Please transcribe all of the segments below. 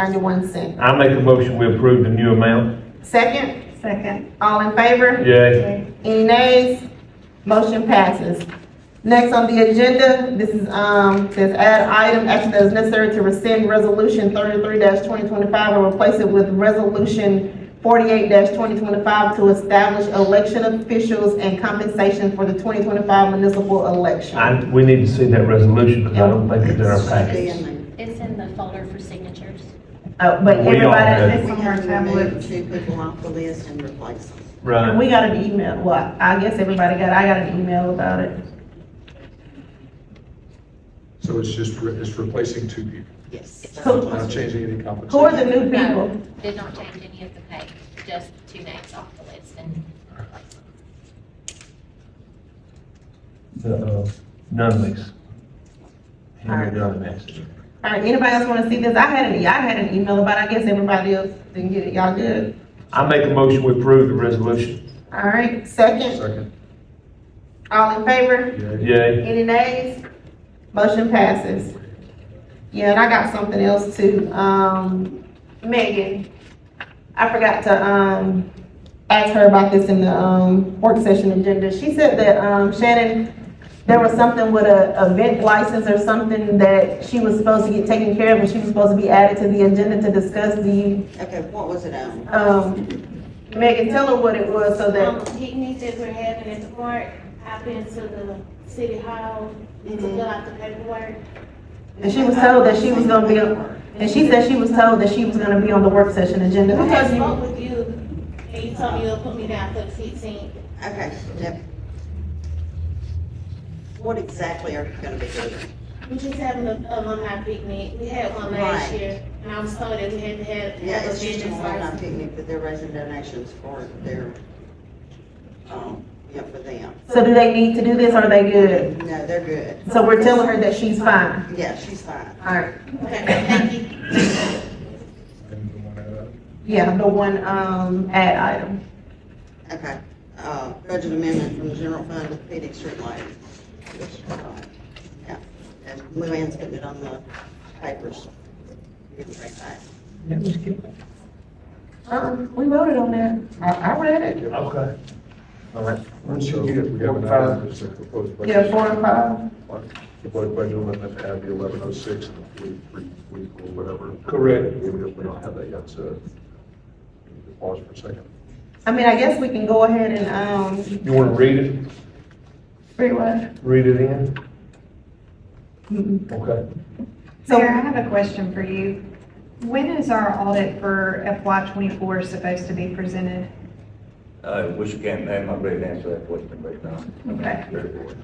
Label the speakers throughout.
Speaker 1: ninety-one cent.
Speaker 2: I make a motion, we approve the new amount.
Speaker 1: Second,
Speaker 3: Second.
Speaker 1: all in favor?
Speaker 2: Yay.
Speaker 4: Um,
Speaker 1: Any nays? Motion passes. Next on the agenda, this is, um, says add item, action that is necessary to rescind resolution thirty-three twenty twenty-five and replace it with resolution forty-eight twenty twenty-five to establish election officials and compensation for the twenty twenty-five municipal election.
Speaker 2: I, we need to see that resolution, because I don't think it's in our package.
Speaker 5: It's in the folder for signatures.
Speaker 1: Uh, but
Speaker 2: We all have-
Speaker 1: everybody,
Speaker 3: It's
Speaker 6: We
Speaker 3: on our
Speaker 6: have
Speaker 3: tablet.
Speaker 6: removed two people off the list and replaced them.
Speaker 2: Right.
Speaker 1: we got an email, well, I guess everybody got, I got an email about it.
Speaker 7: So it's just, re- it's replacing two people,
Speaker 6: Yes.
Speaker 1: Who-
Speaker 7: not changing any compensation.
Speaker 1: Who are the new
Speaker 5: No,
Speaker 1: people?
Speaker 5: Did not change any of the pay, just two names off the list and
Speaker 2: The, uh, none of these. Henry Dunn asked.
Speaker 1: All right, anybody else wanna see this? I had an, e, I had an email about, it. I guess everybody else didn't get it, y'all good?
Speaker 2: I make a motion, we approve the resolution.
Speaker 1: All right, second,
Speaker 7: Second,
Speaker 1: all in favor?
Speaker 7: yeah.
Speaker 2: Yay.
Speaker 1: Any nays? Motion passes. Yeah, and I got something else too, um, Megan, I forgot to, um, ask her about this in the, um, work session agenda. She said that, um, Shannon, there was something with a event license or something that she was supposed to get taken care of, and she was supposed to be added to the agenda to discuss. Do you
Speaker 6: Okay, what was it on?
Speaker 1: um, Megan, tell her what it was so that,
Speaker 4: Um, picnic that we're having at the park, I've been to the city hall to fill out the paperwork.
Speaker 1: and she was told that she was gonna be, on- and she said she was told that she was gonna be on the work session agenda.
Speaker 6: Mm-hmm.
Speaker 1: Who
Speaker 4: I
Speaker 1: told you?
Speaker 4: spoke with you, and you told me you'll put me down for the sixteenth.
Speaker 6: Okay, yep. What exactly are you gonna be doing?
Speaker 4: We're just having a a alumni picnic, we had one last
Speaker 6: Right.
Speaker 4: year, and I was told that we had to have,
Speaker 6: Yeah,
Speaker 4: have a
Speaker 6: it's just an
Speaker 4: business
Speaker 6: online
Speaker 4: license.
Speaker 6: picnic, but they're raising donations for their, um, yeah, for them.
Speaker 1: So do they need to do this or are they good?
Speaker 6: No, they're good.
Speaker 1: So we're telling her that she's fine.
Speaker 6: Yeah, she's fine.
Speaker 1: Alright.
Speaker 4: Okay, thank you.
Speaker 7: And the one out of-
Speaker 1: Yeah, the one, um, ad item.
Speaker 6: Okay. Uh, budget amendment from the general fund to Phoenix Street Lighting. Yeah, and Luann's putting it on the papers. You can bring that.
Speaker 1: Uh-uh, we voted on that. I, I read it.
Speaker 2: Okay. All right.
Speaker 7: So we have an item, it's a proposed budget.
Speaker 1: Yeah, four and five.
Speaker 7: Proposed budget amendment, add the eleven oh six and the forty-three week or whatever.
Speaker 2: Correct.
Speaker 7: We don't we don't have that yet, so we need to pause for a second.
Speaker 1: I mean, I guess we can go ahead and, um,
Speaker 2: You wanna read it?
Speaker 1: free what?
Speaker 2: Read it in?
Speaker 1: Mm-mm.
Speaker 2: Okay.
Speaker 3: Sarah, I
Speaker 1: So,
Speaker 3: have a question for you. When is our audit for FY twenty-four supposed to be presented?
Speaker 8: I wish you can't, I'm not ready to answer that question uh, right now.
Speaker 3: Okay.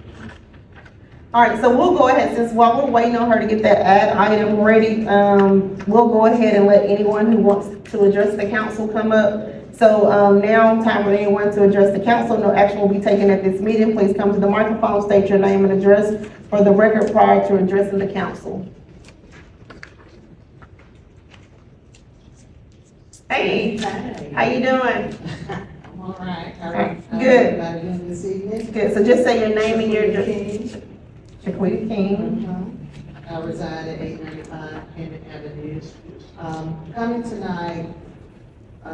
Speaker 1: alright, so we'll go ahead, since while we're waiting on her to get that ad item ready, um, we'll go ahead and let anyone who wants to address the council come up. So, um, now time for anyone to address the council. No action will be taken at this meeting. Please come to the microphone, state your name and address for the record prior to addressing the council. Hey, how you doing?
Speaker 9: I'm all right. How
Speaker 1: Okay,
Speaker 9: how
Speaker 1: good.
Speaker 9: everybody doing this evening?
Speaker 1: Good, so just say your name and your address.
Speaker 9: King.
Speaker 1: Shaquita King.
Speaker 9: Mhm. I reside at eight ninety-five Hammond Avenue. Um, coming tonight, uh,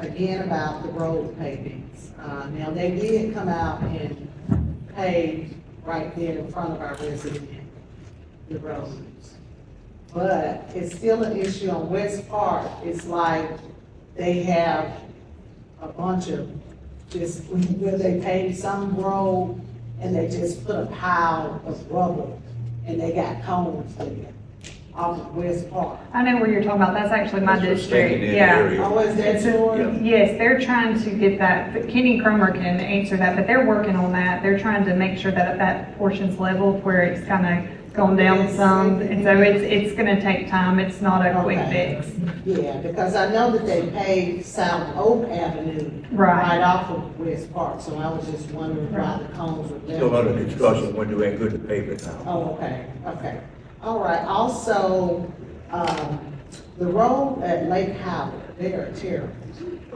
Speaker 9: again about the road pavings. Uh, now, they did come out and pave right there in front of our resident, the roads. But it's still an issue on West Park. It's like they have a bunch of just, where they paved some road and they just put a pile of rubber and they got cones there off of West Park.
Speaker 3: I know where you're talking about. That's actually my district. Yeah.
Speaker 9: Oh, is that yours?
Speaker 3: Yes, they're trying to get that, but Kenny Cromer can answer that, but they're working on that. They're trying to make sure that that portion's leveled where it's kind of gone down some. And so it's, it's going to take time. It's not a quick
Speaker 9: Okay.
Speaker 3: fix.
Speaker 9: Yeah, because I know that they paved South Oak Avenue
Speaker 3: Right.
Speaker 9: right off of West Park, so I was just wondering why the cones were left.
Speaker 8: Still under discussion, we're doing good to pay it now.
Speaker 9: Oh, okay, okay. All right, also, um, the road at Lake Howard, they are terrible.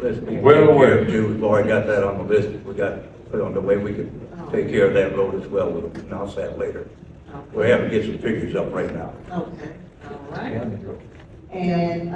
Speaker 8: Let's be
Speaker 2: Well aware.
Speaker 8: too, we've already got that on the list, we got, put on the way we can take care of that road as well, we'll announce that later.
Speaker 9: Okay,
Speaker 8: We're having to get some figures up right now.
Speaker 9: Okay, all right. And